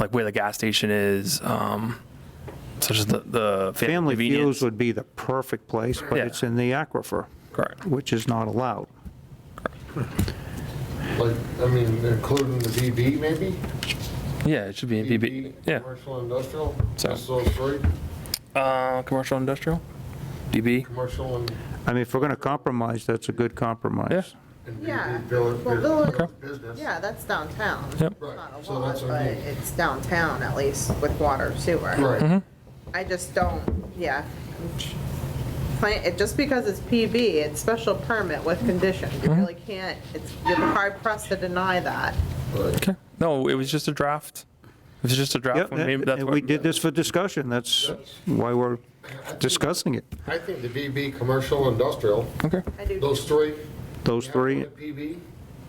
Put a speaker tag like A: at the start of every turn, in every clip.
A: like where the gas station is, um, such as the, the fam-
B: Family
A: convenience.
B: Feuds would be the perfect place, but
A: Yeah.
B: it's in the aquifer,
A: Correct.
B: which is not allowed.
C: Like, I mean, including the BB maybe?
A: Yeah, it should be in BB. Yeah.
C: Commercial, industrial,
A: So-
C: just those three,
A: Uh, commercial industrial, DB.
C: commercial and
B: I mean, if we're going to compromise, that's a good compromise.
A: Yeah.
C: and
D: Yeah.
C: BB village,
D: Well, village-
C: business- business.
D: Yeah, that's downtown.
A: Yep.
D: It's not
C: Right,
D: a
C: so
D: lot,
C: that's what
D: but
C: I mean.
D: it's downtown at least with water sewer.
A: Mm-hmm.
C: Right,
D: I just don't, yeah. Plan- it- Just because it's PB, it's special permit with condition. You really can't, it's, you're hard pressed to deny that.
C: right.
A: Okay. No, it was just a draft. It was just a draft.
B: Yep,
A: when we-
B: and
A: that's
B: and
A: what-
B: we did this for discussion, that's why we're discussing it,
C: I think the BB, commercial, industrial,
A: Okay.
D: I do.
C: those three.
B: those three.
C: PB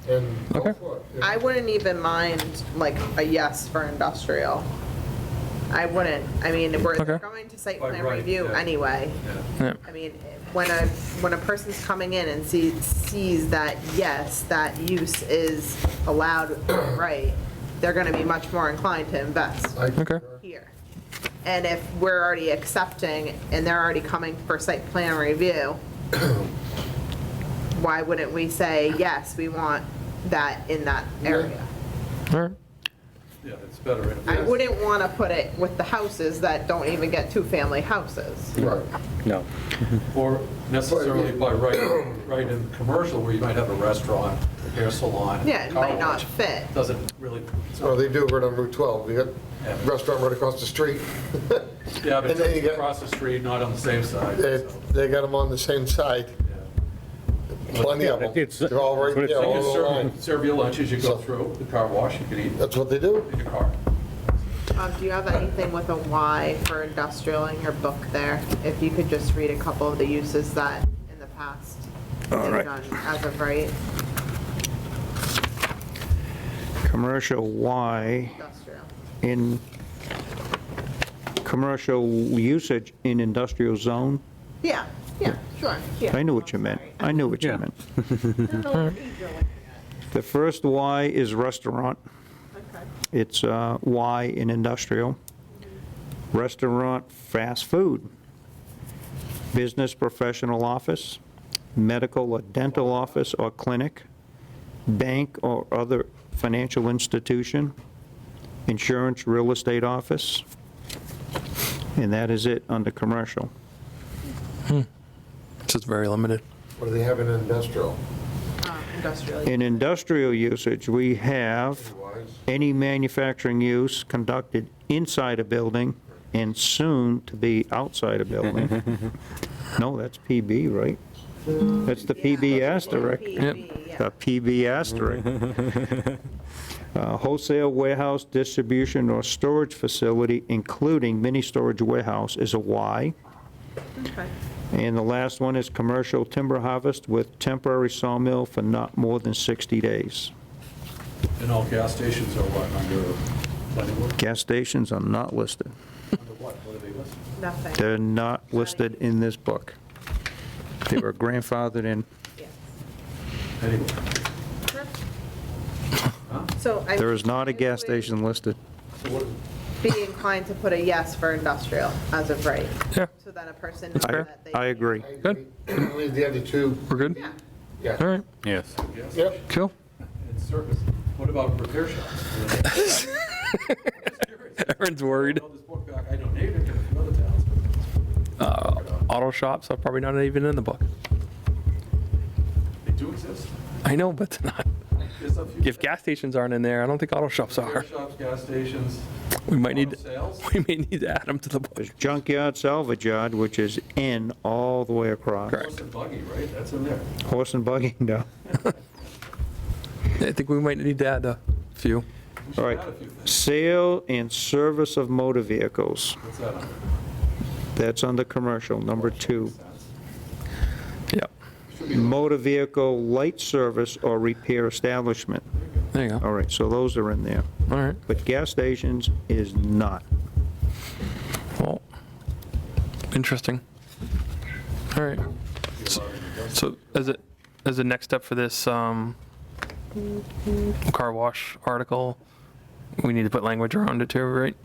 C: and go
A: Okay.
C: for it.
D: I wouldn't even mind like a yes for industrial. I wouldn't, I mean, we're they're
A: Okay.
D: going to site plan review anyway.
A: Yeah.
D: I mean, when a, when a person's coming in and sees, sees that, yes, that use is allowed, right, they're gonna be much more inclined to invest
C: I-
A: Okay.
D: here. And if we're already accepting and they're already coming for site plan review, why wouldn't we say, yes, we want that in that area?
A: All right.
E: Yeah, it's better. in-
D: I wouldn't wanna put it with the houses that don't even get two-family houses.
C: Right,
F: No.
E: Or necessarily by right, right in commercial where you might have a restaurant, a hair salon.
D: Yeah, it might
E: car
D: not
E: wash.
D: fit.
E: Doesn't really,
C: well, Oh, they do right on Route 12, you got
E: Yeah.
C: restaurant right across the street.
E: yeah, but
C: And then you
E: it's
C: got-
E: across the street, not on the same side.
C: They,
E: so,
C: they got them on the same side,
E: yeah.
C: plenty of them.
F: It's-
C: They're all right
F: it's-
C: there,
E: So you
C: all
E: can
C: the line.
E: serve, serve your lunch as you go through, the car wash, you can eat
C: That's what they do.
E: in your car.
D: Um, do you have anything with a Y for industrial in your book there? If you could just read a couple of the uses that in the past have done as of right,
B: Commercial Y
D: industrial.
B: in, commercial usage in industrial zone.
D: Yeah, yeah, sure, yeah.
B: I knew what you meant, I knew what you meant.
D: don't know what page you're looking
B: The first Y is restaurant.
D: at. Okay.
B: It's uh, Y in industrial. Restaurant, fast food. Business professional office, medical or dental office or clinic, bank or other financial institution, insurance, real estate office. And that is it under commercial.
A: It's just very limited.
C: What do they have in industrial?
D: Um, Industrial.
B: In industrial usage, we have
C: Otherwise,
B: any manufacturing use conducted inside a building and soon to be outside a building. No, that's PB, right? That's the PB asterisk,
D: PB, yeah.
B: a PB asterisk. Uh, Wholesale warehouse, distribution, or storage facility, including mini storage warehouse, is a Y.
D: Okay.
B: And the last one is commercial timber harvest with temporary sawmill for not more than 60 days.
E: And all gas stations are what, under, planning board?
B: Gas stations are not listed.
E: under what, what are they listed?
D: Nothing,
B: They're not listed in this book. They were grandfathered in.
D: yes.
E: Anyway,
D: So I.
B: There is not a gas station listed.
E: so what,
D: Be inclined to put a yes for industrial as of right.
A: Yeah.
D: So then a person knows
B: I
D: that they.
B: I agree.
C: I
A: Good.
C: agree. Leave the other two,
A: We're good.
D: Yeah.
A: All
C: yeah.
A: right.
F: Yes.
E: gas
C: Yep.
E: station
A: Cool.
E: and service, what about repair shops?
A: Aaron's worried.
E: I know this book back, I don't need it, from other towns,
A: Uh, auto shops are probably not even in the book.
E: but they do exist.
A: I know, but it's not.
E: There's a few.
A: If gas stations aren't in there, I don't think auto shops
E: Repair
A: are.
E: shops, gas stations.
A: We might need,
E: Auto sales.
A: we may need to add them to the book.
B: There's junkyard, salvage yard, which is N all the way across.
A: Correct.
E: Horse and buggy, right? That's in there.
B: Horse and buggy, no.
A: I think we might need to add a few.
E: We should
B: All right.
E: add a few things.
B: Sale and service of motor vehicles.
E: What's that under?
B: That's under commercial, number two.
A: Yep.
E: Should be low.
B: Motor vehicle light service or repair establishment.
A: There you go.
B: All right, so those are in there.
A: All right.
B: But gas stations is not.
A: Well, interesting. All right. So as a, as a next step for this um, car wash article, we need to put language around it too, right?